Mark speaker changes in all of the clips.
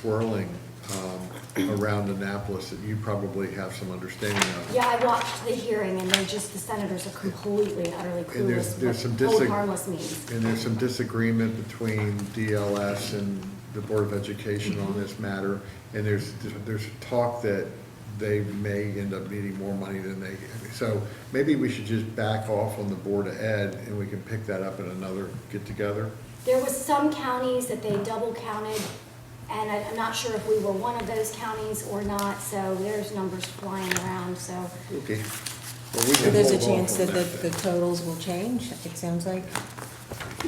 Speaker 1: swirling um, around Annapolis that you probably have some understanding of.
Speaker 2: Yeah, I watched the hearing and they're just, the senators are completely and utterly
Speaker 1: And there's-
Speaker 2: clueless
Speaker 1: there's some
Speaker 2: what hold
Speaker 1: disag-
Speaker 2: harmless means.
Speaker 1: And there's some disagreement between DLS and the Board of Education on this matter. And there's, there's talk that they may end up needing more money than they, so maybe we should just back off on the Board of Ed and we can pick that up at another get-together.
Speaker 2: There was some counties that they double counted and I- I'm not sure if we were one of those counties or not, so there's numbers flying around, so.
Speaker 1: Okay. Well, we
Speaker 3: So
Speaker 1: can
Speaker 3: There's a
Speaker 1: hold off
Speaker 3: chance
Speaker 1: on
Speaker 3: that the, the
Speaker 1: then.
Speaker 3: totals will change, it sounds like.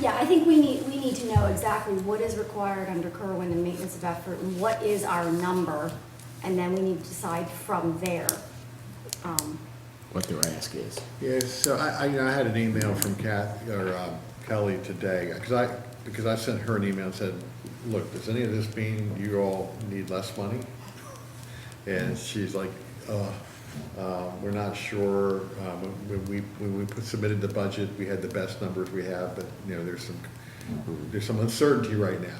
Speaker 2: Yeah, I think we need, we need to know exactly what is required under Kerwin and maintenance of effort and what is our number. And then we need to decide from there. Um,
Speaker 4: what their ask is.
Speaker 1: Yeah, so I, I, you know, I had an email from Kath, or um, Kelly today, because I, because I sent her an email and said, look, does any of this mean you all need less money? And she's like, uh, uh, we're not sure, um, when we, when we put- submitted the budget, we had the best numbers we have, but, you know, there's some, there's some uncertainty right now.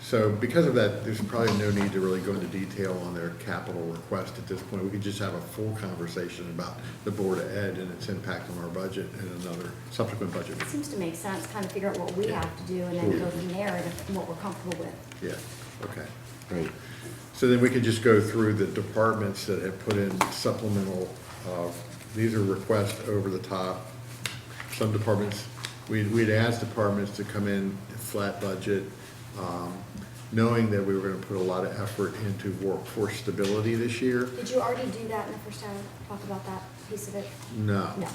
Speaker 1: So because of that, there's probably no need to really go into detail on their capital request at this point. We could just have a full conversation about the Board of Ed and its impact on our budget and another subsequent budget.
Speaker 2: It seems to make sense, kind of figure out what we have to do and then go from there and what we're comfortable with.
Speaker 1: Yeah, okay.
Speaker 4: Right.
Speaker 1: So then we could just go through the departments that have put in supplemental, uh, these are requests over the top. Some departments, we'd, we'd asked departments to come in flat budget, um, knowing that we were gonna put a lot of effort into workforce stability this year.
Speaker 2: Did you already do that in the first round? Talk about that piece of it?
Speaker 1: No.
Speaker 2: No, okay.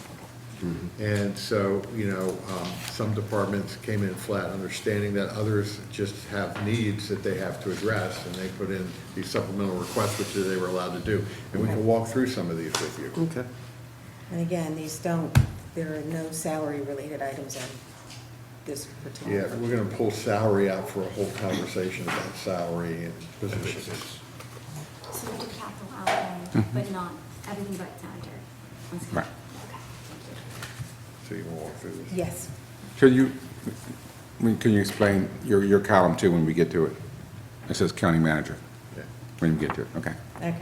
Speaker 1: And so, you know, um, some departments came in flat, understanding that others just have needs that they have to address, and they put in these supplemental requests, which they were allowed to do. And we can walk through some of these with you.
Speaker 4: Okay.
Speaker 3: And again, these don't, there are no salary-related items on this particular.
Speaker 1: Yeah, we're gonna pull salary out for a whole conversation about salary and positions.
Speaker 2: So we did capital outlay, but not everything but sanitary. That's good.
Speaker 4: Right.
Speaker 2: Okay.
Speaker 1: So you wanna walk through this?
Speaker 3: Yes,
Speaker 5: Can you, when- can you explain your, your column two when we get to it? It says county manager,
Speaker 1: Yeah.
Speaker 5: when we get to it, okay.
Speaker 3: okay.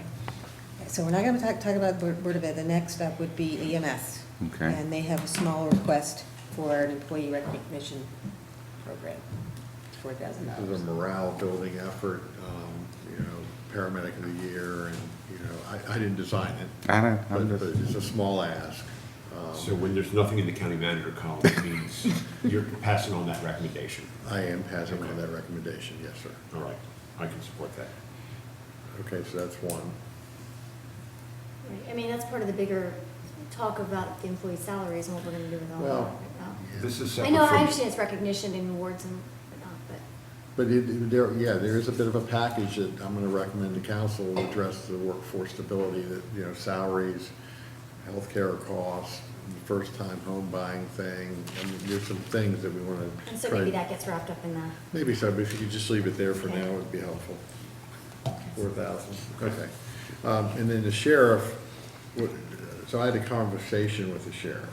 Speaker 3: So we're not gonna talk, talk about Board Board of Ed, the next up would be EMS.
Speaker 5: Okay.
Speaker 3: And they have a small request for an employee recognition program, four thousand
Speaker 1: This is a
Speaker 3: dollars.
Speaker 1: morale building effort, um, you know, paramedic of the year, and, you know, I, I didn't design it.
Speaker 5: I know, I'm
Speaker 1: But but
Speaker 5: just-
Speaker 1: it's a small ask. Um,
Speaker 6: So when there's nothing in the county manager column, it means you're passing on that recommendation.
Speaker 1: I am passing on that recommendation, yes, sir.
Speaker 6: All right, I can support that.
Speaker 1: Okay, so that's one.
Speaker 2: Right, I mean, that's part of the bigger talk about the employee salaries and what we're gonna do with all that.
Speaker 1: Well,
Speaker 2: right?
Speaker 6: This is
Speaker 2: I
Speaker 6: separate
Speaker 2: know, I
Speaker 6: from,
Speaker 2: understand it's recognition and awards and whatnot, but
Speaker 1: But it, there, yeah, there is a bit of a package that I'm gonna recommend to council to address the workforce stability, that, you know, salaries, healthcare costs, first-time home buying thing, I mean, there's some things that we wanna.
Speaker 2: and so
Speaker 1: try-
Speaker 2: maybe that gets wrapped up in that.
Speaker 1: Maybe so, but if you could just leave it there for now,
Speaker 2: Okay.
Speaker 1: it'd be helpful. Four thousand, okay. Um, and then the sheriff, what- so I had a conversation with the sheriff.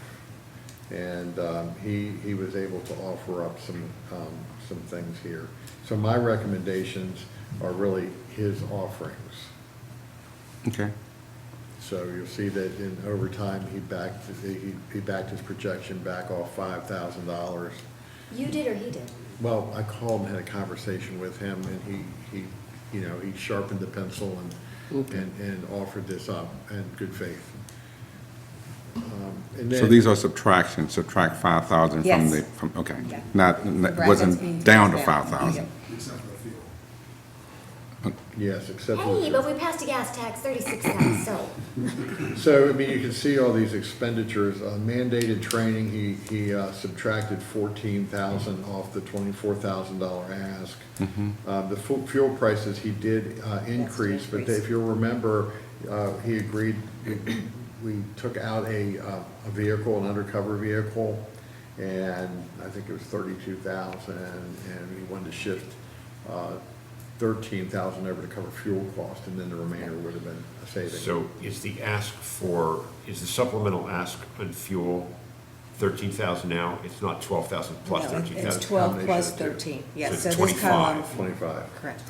Speaker 1: And, um, he, he was able to offer up some, um, some things here. So my recommendations are really his offerings.
Speaker 5: Okay.
Speaker 1: So you'll see that in overtime, he backed, he, he backed his projection back off five thousand dollars.
Speaker 2: You did or he did?
Speaker 1: Well, I called and had a conversation with him, and he, he, you know, he sharpened the pencil and, and, and offered this up in good faith. Um, And
Speaker 5: So these
Speaker 1: then,
Speaker 5: are subtractions, subtract five thousand from
Speaker 3: Yes.
Speaker 5: the, from, okay.
Speaker 3: Yeah.
Speaker 5: Not, it wasn't
Speaker 3: Brackets
Speaker 5: down to
Speaker 3: means
Speaker 5: five thousand.
Speaker 1: yes, except,
Speaker 2: Hey, but we passed a gas tax, thirty-six cents, so.
Speaker 1: so, I mean, you can see all these expenditures, Uh, mandated training, he, he uh, subtracted fourteen thousand off the twenty-four thousand dollar ask. Uh, The fu- fuel prices, he did uh, increase, but
Speaker 3: increase.
Speaker 1: if you remember, uh, he agreed, we- we took out a, uh, a vehicle, an undercover vehicle, and I think it was thirty-two thousand, and we wanted to shift uh, thirteen thousand over to cover fuel cost, and then the remainder would have been a savings.
Speaker 6: so is the ask for, is the supplemental ask on fuel thirteen thousand now? It's not twelve thousand plus
Speaker 3: No,
Speaker 6: thirteen
Speaker 3: it's
Speaker 6: thousand?
Speaker 3: twelve plus
Speaker 1: combination of the two.
Speaker 3: thirteen, yes,
Speaker 6: So
Speaker 3: so
Speaker 6: it's
Speaker 3: this column,
Speaker 6: 25.
Speaker 1: Twenty-five.
Speaker 3: correct.